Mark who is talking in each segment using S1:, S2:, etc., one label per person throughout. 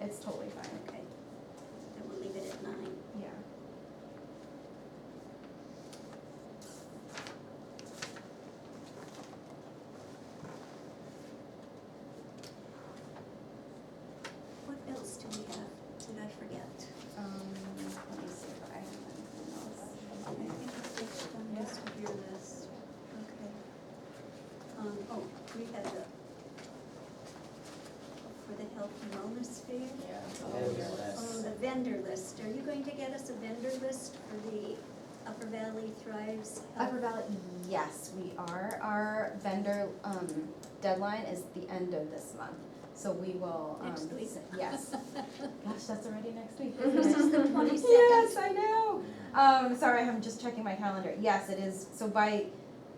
S1: it's totally fine,
S2: Okay. Then we'll leave it at nine.
S1: yeah.
S2: What else do we have? Did I forget?
S1: Um, let me see if I have anything
S2: I
S1: else.
S2: think I touched on most of your list. Okay. Um, oh, we had the, for the health and wellness fair.
S1: Yeah.
S3: Vendor
S2: Oh,
S3: list.
S2: the vendor list. Are you going to get us a vendor list for the Upper Valley Thrives? Uh, Health-
S1: Upper Valley, yes, we are. Our vendor, um, deadline is the end of this month, so we will, um.
S2: Next week.
S1: Yes. Gosh, that's already next week, isn't
S2: This is
S1: it?
S2: the twenty-second.
S1: Yes, I know. Um, sorry, I'm just checking my calendar. Yes, it is, so by,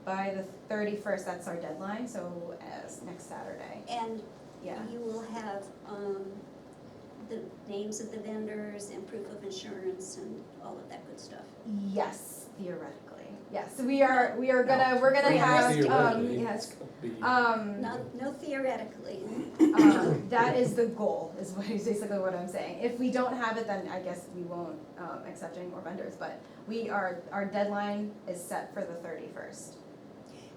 S1: by the thirty-first, that's our deadline, so as next Saturday,
S2: And
S1: yeah.
S2: You will have, um, the names of the vendors and proof of insurance and all of that good stuff.
S1: Yes, theoretically, yes, we are, we are gonna, we're gonna
S2: Yeah,
S1: have, um,
S3: theoretically.
S1: yes,
S3: Be-
S1: um,
S2: Not, no theoretically,
S1: um, that is the goal, is what is basically what I'm saying. If we don't have it, then I guess we won't, um, accept any more vendors, but we are, our deadline is set for the thirty-first.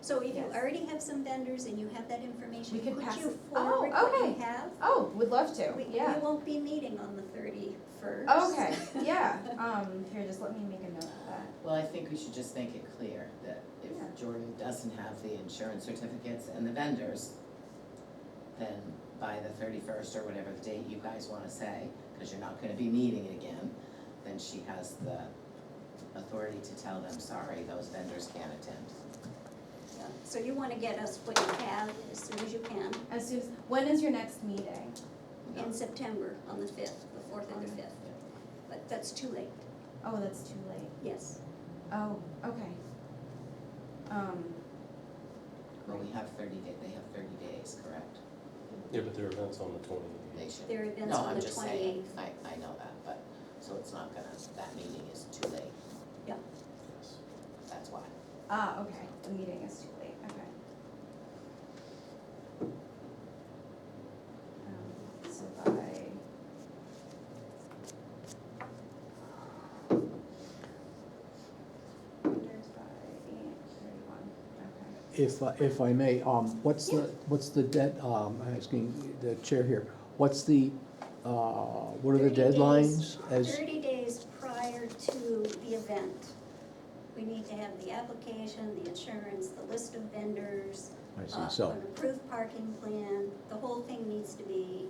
S2: so if you
S1: Yes.
S2: already have some vendors and you have that information,
S1: We could
S2: could
S1: pass
S2: you
S1: it- oh,
S2: forward what you
S1: okay.
S2: have?
S1: Oh, would love to,
S2: We-
S1: yeah.
S2: We won't be meeting on the thirty-first.
S1: Okay, yeah, um, here, just let me make a note of that.
S3: Well, I think we should just make it clear that
S1: Yeah.
S3: if Jordan doesn't have the insurance certificates and the vendors, then by the thirty-first or whatever the date you guys wanna say, cause you're not gonna be meeting it again, then she has the authority to tell them, sorry, those vendors can't attend.
S2: So you wanna get us what you have as soon as you can,
S1: As soon as, when is your next meeting?
S3: No.
S2: in September, on the fifth, the fourth or the
S1: Okay.
S2: fifth, but that's too late,
S1: Oh, that's too late.
S2: yes.
S1: Oh, okay. Um,
S3: Well, we have thirty day, they have thirty days, correct?
S4: Yeah, but their event's on the
S3: They
S4: twentieth.
S3: should.
S2: Their event's on the
S3: No, I'm just saying,
S2: twenty-eighth.
S3: I, I know that, but, so it's not gonna, that meeting is too late, that's why.
S1: ah, okay, the meeting is too late, okay. Um, So by, there's by eight thirty-one, okay.
S5: If, I- if I may, um, what's the, what's the dead, um, I'm asking the chair here, what's the, uh, what are the
S2: 30 days.
S5: deadlines as,
S2: Thirty days prior to the event, we need to have the application, the insurance, the list of vendors,
S5: I
S2: uh,
S5: see, so,
S2: an approved parking plan, the whole thing needs to be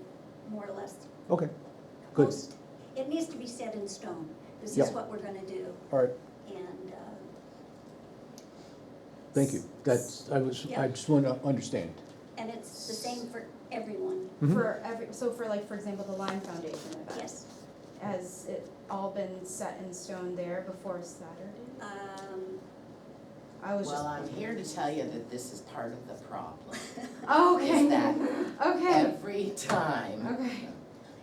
S2: more or less.
S5: okay, Good.
S2: post- It needs to be set in stone, this is
S5: Yep.
S2: what we're gonna do,
S5: all right,
S2: and, uh.
S5: thank you. That's, I was, I just want to understand.
S2: And it's the same for everyone,
S5: Mhm.
S1: For every, so for like, for example, the Lime Foundation event?
S2: yes,
S1: Has it all been set in stone there before Saturday?
S2: um,
S1: I was
S3: Well,
S1: just.
S3: I'm here to tell you that this is part of the problem.
S1: Okay.
S3: Is that
S1: Okay,
S3: every time,
S1: okay,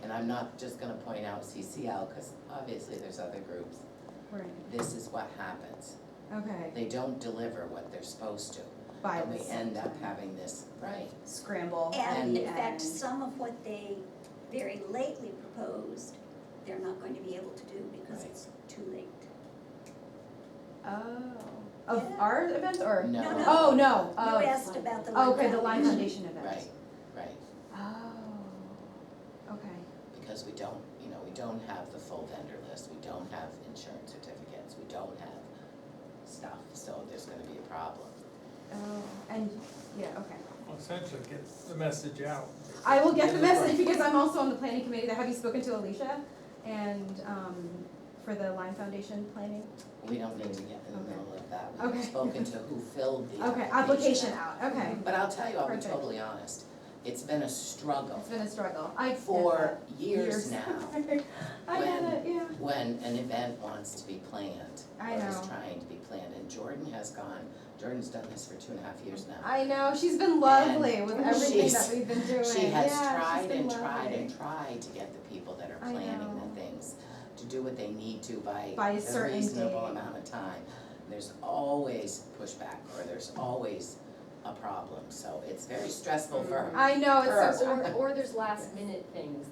S3: and I'm not just gonna point out CCL, cause obviously there's other groups,
S1: right,
S3: this is what happens.
S1: okay.
S3: They don't deliver what they're supposed to,
S1: By
S3: and we
S1: the
S3: end up
S1: time.
S3: having this, right,
S1: Scramble.
S2: And in
S1: and-
S2: fact, some of what they very lately proposed, they're not going to be able to do because
S3: Right.
S2: it's too late.
S1: Oh, of
S2: Yeah.
S1: our events or?
S3: No.
S2: No, no.
S1: Oh, no,
S2: You
S1: of-
S2: asked about the
S1: Oh, Okay, the Lime
S2: Lime
S1: Foundation event.
S3: right, right,
S1: Oh, okay,
S3: because we don't, you know, we don't have the full vendor list, we don't have insurance certificates, we don't have stuff, so there's gonna be a problem.
S1: oh, and, yeah, okay.
S6: Well, essentially, get the message out.
S1: I will get the message because I'm also on the planning committee. That have you spoken to Alicia? And um, for the Lime Foundation planning.
S3: We don't need to get in the middle of that,
S1: Okay.
S3: we've spoken to who filled the
S1: Okay, application out. Okay,
S3: But I'll tell you, I'll be
S1: Perfect.
S3: totally honest, it's been a struggle
S1: it's been a struggle. I get
S3: for
S1: that.
S3: years now
S1: I get
S3: When-
S1: it. Yeah.
S3: when an event wants to be planned
S1: I
S3: or is
S1: know.
S3: trying to be planned, and Jordan has gone, Jordan's done this for two and a half years now.
S1: I know she's been lovely with
S3: And
S1: everything that
S3: she's-
S1: we've been doing.
S3: She
S1: yeah,
S3: has
S1: she's
S3: tried
S1: been
S3: and tried
S1: lovely.
S3: and tried to get the people that are
S1: I
S3: planning
S1: know.
S3: the things to do what they need to by
S1: By a
S3: a
S1: certain
S3: reasonable
S1: date.
S3: amount of time. There's always pushback or there's always a problem, so it's very stressful for her.
S1: Mm-hmm. I know it's so
S3: Her.
S7: Or, or there's last minute things